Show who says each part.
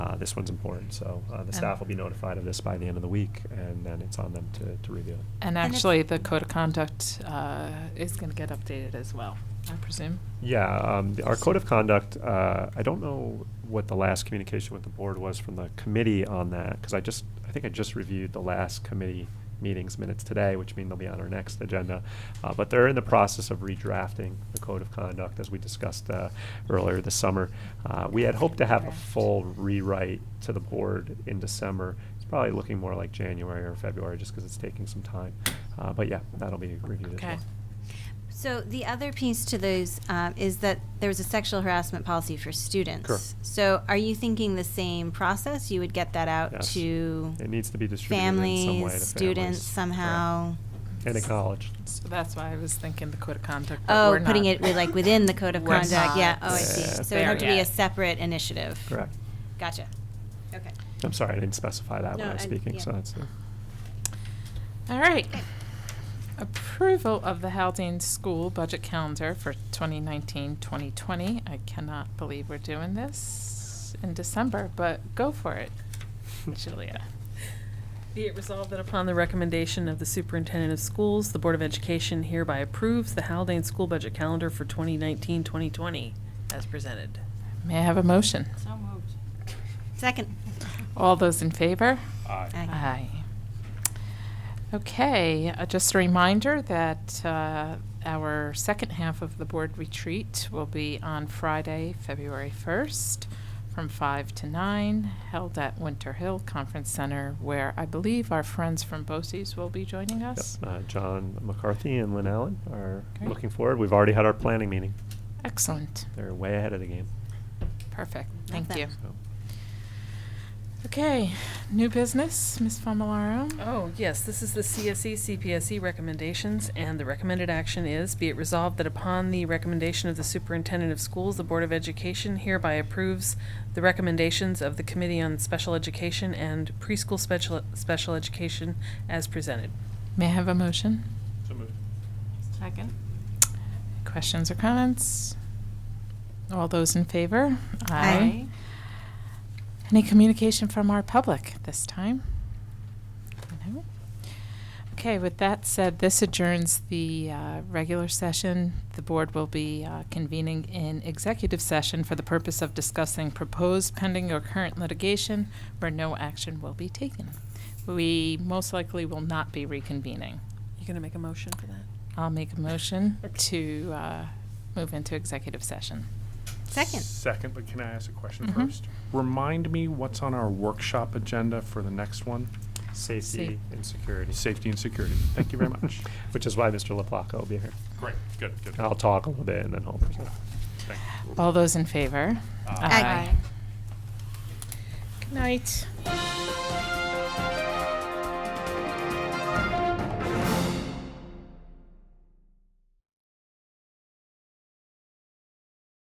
Speaker 1: Uh, this one's important, so uh, the staff will be notified of this by the end of the week, and then it's on them to, to review it.
Speaker 2: And
Speaker 3: And if-
Speaker 2: actually, the code of conduct uh, is going to get updated as well, I presume.
Speaker 1: Yeah, um, the- our code of conduct, uh, I don't know what the last communication with the board was from the committee on that, because I just, I think I just reviewed the last committee meetings minutes today, which mean they'll be on our next agenda. Uh, but they're in the process of redrafting the code of conduct, as we discussed, uh, earlier this summer. Uh, we had hoped to have a
Speaker 3: Draft.
Speaker 1: full rewrite to the board in December. It's probably looking more like January or February, just because it's taking some time. Uh, but yeah, that'll be reviewed as
Speaker 2: Okay.
Speaker 1: well.
Speaker 3: So the other piece to those um, is that there was a sexual harassment policy for students.
Speaker 1: Correct.
Speaker 3: So are you thinking the same process? You would get that out
Speaker 1: Yes.
Speaker 3: to
Speaker 1: It needs to be distributed in some way to
Speaker 3: families,
Speaker 1: families.
Speaker 3: students
Speaker 1: Correct.
Speaker 3: somehow?
Speaker 1: And acknowledged.
Speaker 2: So that's why I was thinking the code of conduct. but
Speaker 3: Oh,
Speaker 2: we're
Speaker 3: putting
Speaker 2: not-
Speaker 3: it with, like within the code of
Speaker 2: We're
Speaker 3: conduct.
Speaker 2: not
Speaker 3: Yeah. Oh, I see.
Speaker 1: Yeah.
Speaker 3: So it had to
Speaker 2: there
Speaker 3: be a
Speaker 2: yet.
Speaker 3: separate initiative.
Speaker 1: Correct.
Speaker 3: Gotcha. Okay.
Speaker 1: I'm sorry, I didn't specify that when
Speaker 3: No,
Speaker 1: I was
Speaker 3: I-
Speaker 1: speaking,
Speaker 3: yeah.
Speaker 1: so that's, uh,
Speaker 2: All right.
Speaker 3: Okay.
Speaker 2: Approval of the Haldane School Budget Calendar for 2019-2020. I cannot believe we're doing this in December, but go for it, Julia.
Speaker 4: Be it resolved that upon the recommendation of the superintendent of schools, the Board of Education hereby approves the Haldane School Budget Calendar for 2019-2020 as presented.
Speaker 2: May I have a motion?
Speaker 3: Second.
Speaker 2: All those in favor?
Speaker 3: Aye.
Speaker 2: Aye. Okay, uh, just a reminder that uh, our second half of the board retreat will be on Friday, February 1st, from 5 to 9, held at Winter Hill Conference Center, where I believe our friends from BOCES will be joining
Speaker 1: Yep,
Speaker 2: us.
Speaker 1: uh, John McCarthy and Lynn Allen are
Speaker 2: Great.
Speaker 1: looking forward. We've already had our planning meeting.
Speaker 2: Excellent,
Speaker 1: They're way ahead of the game,
Speaker 2: perfect,
Speaker 3: Love
Speaker 2: thank you.
Speaker 3: that.
Speaker 1: so.
Speaker 2: Okay, new business, Ms. Familaro?
Speaker 4: Oh, yes, this is the E, CSE, CPSE recommendations, and the recommended action is, be it resolved that upon the recommendation of the superintendent of schools, the Board of Education hereby approves the recommendations of the Committee on Special Education and Preschool Special, Special Education as presented.
Speaker 2: May I have a motion? Second. Questions or comments? All those in favor?
Speaker 3: Aye.
Speaker 2: Any communication from our public this time? No? Okay, with that said, this adjourns the uh, regular session. The board will be uh, convening in executive session for the purpose of discussing proposed pending or current litigation where no action will be taken. We most likely will not be reconvening.
Speaker 4: You gonna make a motion for that?
Speaker 2: I'll make a motion to uh, move into executive session.
Speaker 3: Second.
Speaker 5: Second, but can I ask a question
Speaker 2: Mhm.
Speaker 5: first? Remind me what's on our workshop agenda for the next one?
Speaker 1: Safety and security,
Speaker 5: Safety and security. Thank you very much.
Speaker 1: which is why Mr. LaPlaca will be here.
Speaker 5: Great, good, good.
Speaker 1: I'll talk a little bit and then he'll present.
Speaker 5: Thank you.
Speaker 2: All those in favor?
Speaker 3: Aye.
Speaker 2: Good night.